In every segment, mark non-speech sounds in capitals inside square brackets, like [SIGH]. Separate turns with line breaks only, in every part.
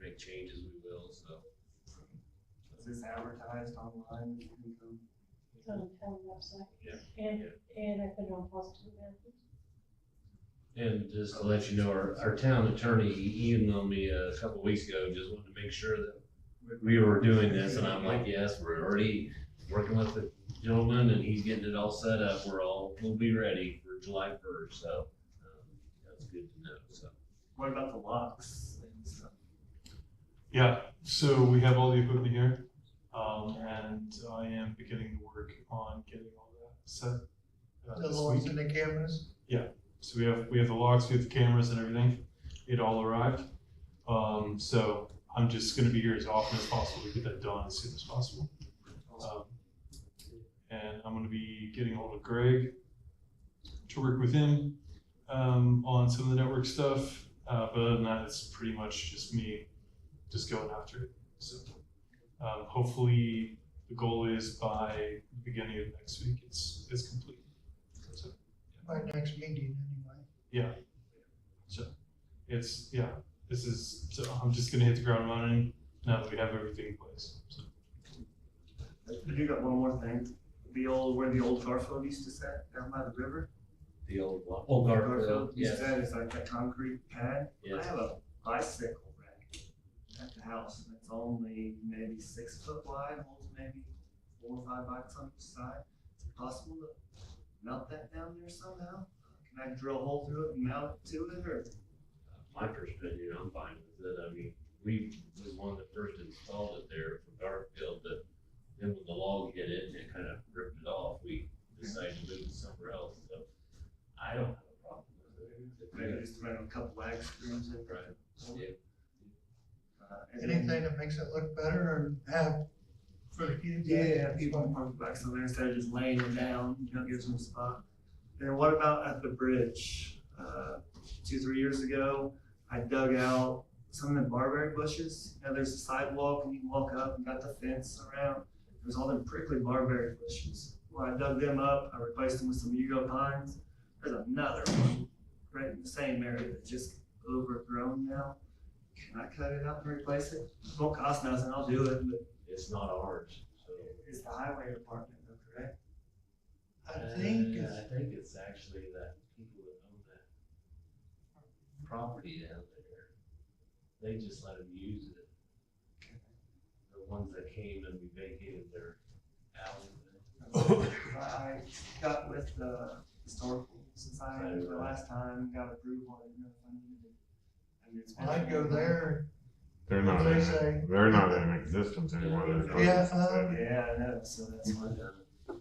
make changes, we will, so.
Is this advertised online? You can go-
It's on the town website.
Yeah,
And, and I put it on positive benefits.
And just to let you know, our, our town attorney he emailed me a couple weeks ago, just wanted to make sure that we were doing this, and I'm like, yes, we're already working with the gentleman, and he's getting it all set up, we're all, we'll be ready for July first, so, um, that's good to know, so.
What about the locks and stuff?
Yeah, so we have all the equipment here, um, and I am beginning to work on getting all that set. uh,
The
this
lords
week.
and the cameras?
So we have, we have the logs, we have the cameras and everything, it all arrived. Um, so I'm just gonna be here as often as possible to get that done as soon as possible. Um, And I'm gonna be getting hold of Greg to work with him, um, on some of the network stuff, uh, but other than that, it's pretty much just me just going after it, so. Um, hopefully, the goal is by the beginning of next week, it's, it's complete, so.
By next meeting anyway.
it's yeah this is so i'm just going to hit the ground running now that we have everything in place so,
I do got one more thing. The old, where the old Garfield used to sit down by the river.
The old, wa- old Garfield,
used to
yes,
sit, It's like that concrete pad. I
yes,
have a bicycle rack at the house and it's only maybe six foot wide, holds maybe four or five bikes on each side. Is it possible to mount that down there somehow? Can I drill a hole through it and mount it to it or?
uh, my perspective, I'm fine with it, I mean, we, was one that first installed it there for Garfield, but then when the log hit it and it kind of ripped it off, we decided to move it somewhere else, so I don't have a problem with
Maybe
it.
just run a couple lag screws in.
Right. Yeah,
Uh, and then-
Anything that makes it look better or have for the kids.
Yeah, people can park bikes on there instead of just laying them down, you know, gives them a spot. And what about at the bridge? Uh, two, three years ago, I dug out some of the barberry bushes. You know, there's a sidewalk and you can walk up and got the fence around. There's all them prickly barberry bushes. Well, I dug them up, I replaced them with some Yugo pines. There's another one right in the same area that's just overgrown now. Can I cut it out and replace it? It won't cost nothing, I'll do it, but
It's not ours, so.
is the highway department, though, correct?
I think
Uh,
it's
I think it's actually that people that own that property down there, they just let them use it. The ones that came and we vacated their alley.
I got with the historical society the last time, got approval, and no funding. And it's-
when I go there,
They're
What
not,
do they
in,
say?
they're not in existence anymore. They're
Yeah, um,
Yeah, I know, so that's why, uh,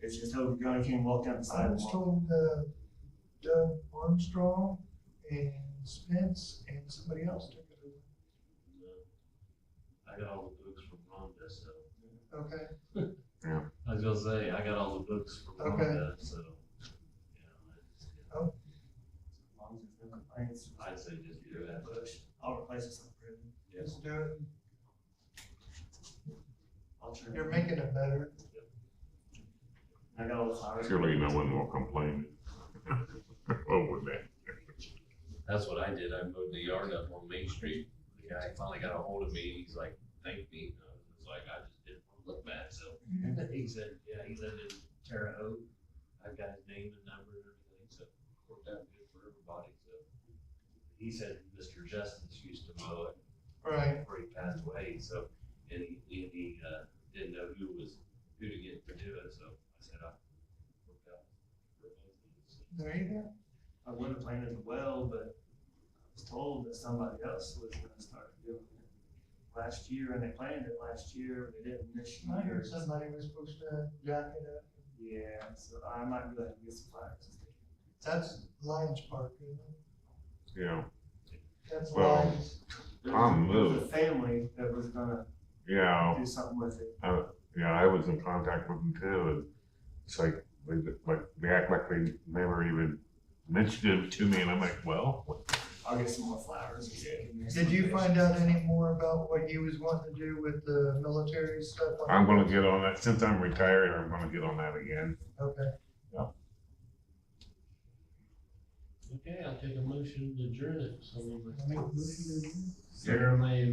it's just overgrown, you can't walk down the
I was
sidewalk.
told uh, Doug Armstrong and Spence and somebody else took it
I got all the books from Rhonda, so,
over. Okay,
I was gonna say, I got all the books from
Okay.
Rhonda, so. you know, I just-
As long as there's no complaints.
I'd say just do that.
Bush, I'll replace it with something.
Yes,
just do it.
I'll try.
You're making it better.
I got all the flowers.
Surely no one will complain [LAUGHS] over that.
That's what I did. I mowed the yard up on Main Street. The guy finally got a hold of me. He's like, thank me. And I was like, I just didn't want to look bad. So [LAUGHS] he said, yeah, he lived in Terre Haute. I've got his name and number and everything. So it worked out good for everybody. So he said, Mr. Justice used to mow it
Right,
before he passed away. So, and he, and he, uh, didn't know who was, who to get to do it. So I said, I worked out. for both of us."
there you go.
I would have planted the well, but I was told that somebody else was gonna start doing it last year, and they planted it last year, but they didn't this
I
year.
heard somebody was supposed to jack it up.
Yeah, so I might be like, get some flowers.
That's Lions Park, isn't it?
Yeah,
That's
Well,
Lions.
There
Tom
was a- there was a
moved. Oh.
Family that was gonna
yeah,
do something with it.
yeah. I was in contact with them too. And it's like they, like they act like they never even mentioned it to me, and I'm like, well,
I'll get some more flowers. and get in there
Did you
someday.
find out any more about what you was wanting to do with the military stuff?
I'm going to get on that since I'm retired. I'm going to get on that again.
Okay,
Okay, I'll take a motion to adjourn it. So
Make a motion to adjourn.
Sarah May